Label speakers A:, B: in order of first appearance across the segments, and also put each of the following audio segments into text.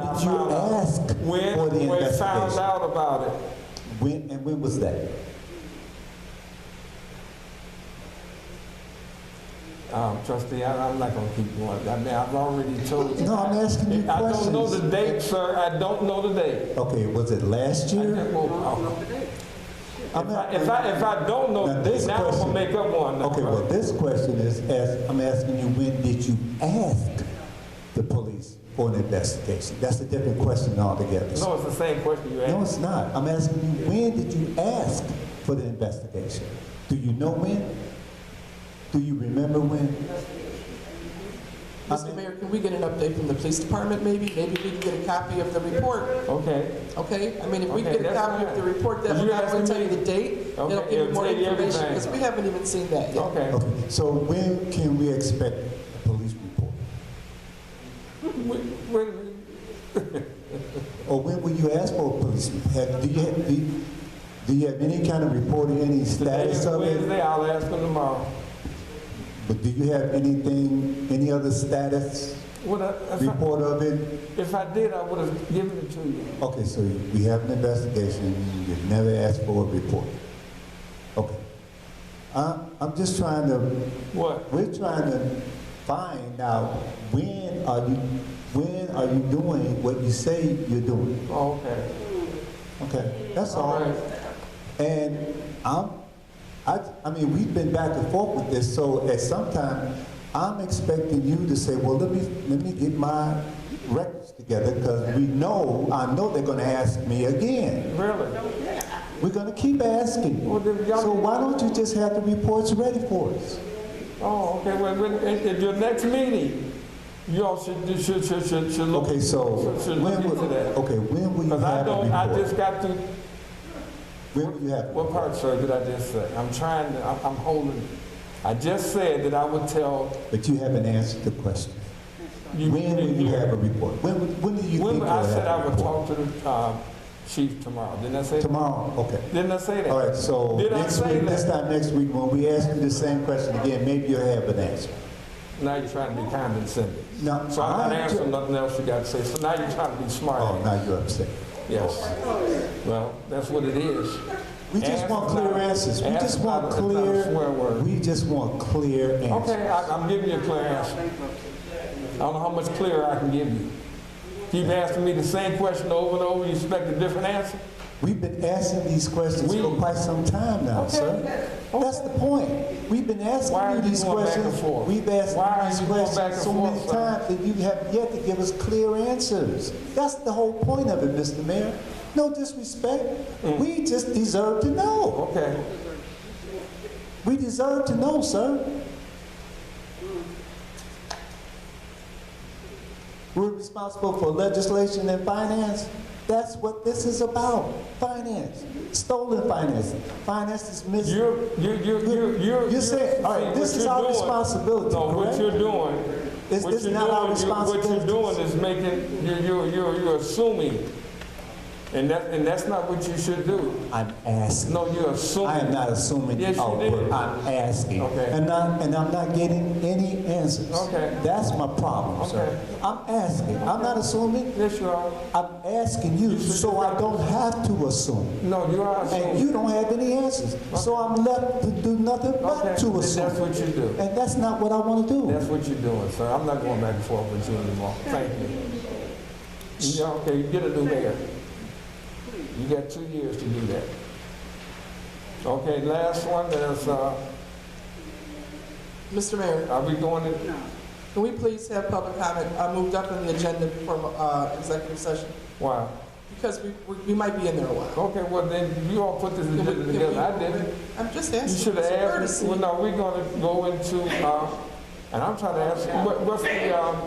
A: I
B: You
A: found out
B: asked
A: when
B: for the
A: we found
B: investigation.
A: out about it.
B: When, and when was that?
A: Um, trustee, I, I'm not gonna keep going. I mean, I've already told you.
B: No, I'm asking you
A: I don't know the
B: questions.
A: date, sir. I don't know the date.
B: Okay, was it last
A: I
B: year?
A: just won't- I'll-
B: I'm not-
A: If I, if I don't know
B: Now,
A: the date,
B: this
A: now I'm gonna
B: question-
A: make up one. now.
B: Okay, well, this question is, ask- I'm asking you, when did you ask the police for an investigation? That's a different question altogether.
A: No, it's the same question you
B: No,
A: asked.
B: it's not. I'm asking you, when did you ask for the investigation? Do you know when? Do you remember when?
C: Mr. Mayor, can we get an update from the police department, maybe? Maybe we can get a copy of the report,
A: Okay.
C: okay? I mean, if we
A: Okay,
C: can get a
A: that's
C: copy of
A: fine.
C: the report, that
A: You
C: will not
A: asking
C: only tell you
A: me-
C: the date, it'll
A: Okay,
C: give you
A: it'll
C: more
A: tell you
C: information,
A: everything.
C: because we haven't even seen that yet.
A: Okay.
B: Okay, so when can we expect a police report?
A: When- when-
B: Or when will you ask for a police report? Have- Do you have, do you- do you have any kind of report or any
A: Today
B: status
A: is
B: of it?
A: Wednesday, I'll ask them tomorrow.
B: But do you have anything, any other status
A: What I- if I,
B: report of it?
A: if I did, I would have given it to you.
B: Okay, so we have an investigation, you've never asked for a report. Okay. I, I'm just trying to,
A: What?
B: we're trying to find out when are you, when are you doing what you say you're doing?
A: Oh, okay.
B: Okay, that's
A: All
B: all.
A: right.
B: And I'm, I, I mean, we've been back and forth with this, so at some time, I'm expecting you to say, well, let me, let me get my records together, because we know, I know they're gonna ask me again.
A: Really?
B: We're gonna keep asking.
A: Well, then y'all-
B: So why don't you just have the reports ready for us?
A: Oh, okay. Well, when, at, at your next meeting, y'all should, you should, should, should, should look.
B: Okay, so,
A: Should- should
B: when
A: look
B: will,
A: into that.
B: okay, when will you
A: Because I
B: have
A: don't,
B: a
A: I
B: report?
A: just got to,
B: When will you have?
A: what part, sir, did I just say? I'm trying to, I'm, I'm holding. I just said that I would tell
B: But you haven't answered the question.
A: you.
B: When will you have a report? When, will- when do you think
A: When,
B: you'll
A: I
B: have
A: said I
B: a
A: would
B: report?
A: talk to the, uh, chief tomorrow. Didn't I say?
B: Tomorrow, okay.
A: Didn't I say that?
B: All right, so
A: Did I
B: next
A: say
B: week,
A: that?
B: this time next week, when we ask you the same question again, maybe you'll have an answer.
A: Now you're trying to be condescending.
B: No,
A: So I'm not
B: I'm
A: answering
B: ju-
A: nothing else you got to say. So now you're trying to be smart.
B: Oh, now you're upset.
A: Yes. Well, that's what it is.
B: We just
A: Ask
B: want clear
A: about-
B: answers. We
A: ask
B: just want
A: about it. It's not a swear
B: clear,
A: word.
B: we just want clear answers.
A: Okay, I, I'm giving you a clear answer. I don't know how much clearer I can give you. Keep asking me the same question over and over, you expect a different answer?
B: We've been asking these questions
A: We-
B: for quite some time now,
A: Okay.
B: sir. That's the point. We've been
A: Why are
B: asking you
A: you
B: these
A: going back and
B: questions.
A: forth?
B: We've
A: Why are
B: asked
A: you going
B: you these
A: back
B: questions
A: and
B: so many
A: forth, sir?
B: times that you have yet to give us clear answers. That's the whole point of it, Mr. Mayor. No disrespect.
A: Mm.
B: We just deserve to know.
A: Okay,
B: We deserve to know, sir. We're responsible for legislation and finance. That's what this is about. Finance, stolen finance. Finance is missing.
A: you're, you're, you're, you're, you're.
B: You said, all right,
A: see,
B: this
A: what
B: is
A: you're
B: our
A: doing-
B: responsibility,
A: No, what
B: correct?
A: you're doing.
B: It's-
A: what
B: it's
A: you're
B: not our
A: doing, you- What
B: responsibility.
A: you're doing is making, you're, you're, you're, you're assuming. And that, and that's not what you should do.
B: I'm asking.
A: No, you're assuming.
B: I am not assuming
A: Yes, you
B: our
A: did.
B: work. I'm asking.
A: Okay.
B: And I'm, and I'm not getting any answers.
A: Okay.
B: That's my problem, sir.
A: Okay.
B: I'm asking. I'm not assuming.
A: Yes, you are.
B: I'm asking you so I don't have to assume.
A: No, you are
B: And
A: assuming.
B: you don't have any answers. So I'm left to do nothing
A: Okay,
B: but to
A: then that's
B: assume.
A: what you do.
B: And that's not what I want to do.
A: That's what you're doing, sir. I'm not going back and forth with you anymore. Thank you. You know, okay, you get a new mayor. You got two years to do that. Okay, last one is, uh,
C: Mr. Mayor,
A: are we going to,
C: can we please have public comment uh, moved up on the agenda before uh, executive session?
A: why?
C: Because we- we we might be in there a while.
A: Okay, well then, you all put this
C: Can we-
A: agenda
C: can we-
A: together. I didn't.
C: I'm just
A: You
C: asking.
A: should have
C: It's a
A: asked,
C: courtesy.
A: well, no, we're going to go into, uh, and I'm trying to ask, what, what's the, um,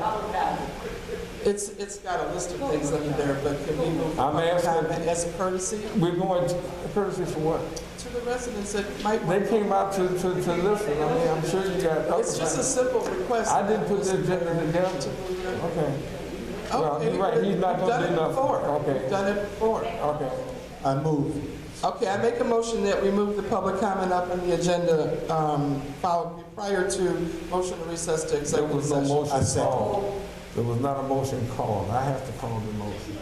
C: It's, it's got a list of things under there, but can we move?
A: I'm asking-
C: comment As a courtesy
A: we're going to, courtesy for what?
C: to the residents that might.
A: They came out to, to, to listen. I mean, I'm sure you got. other
C: It's just a
A: things.
C: simple request.
A: I didn't put the agenda together. Okay. Well,
C: Okay,
A: you're right, he's not gonna
C: we've Oh, done
A: do
C: it
A: nothing.
C: before.
A: Okay.
C: We've Done it before.
A: Okay,
B: I move.
C: Okay, I make a motion that we move the public comment up on the agenda, um, followed prior to motion to recess to
A: there
C: executive
A: was no
C: session.
A: motion
B: I
A: at
B: second.
A: all. There was not a motion called. I have to call the motion.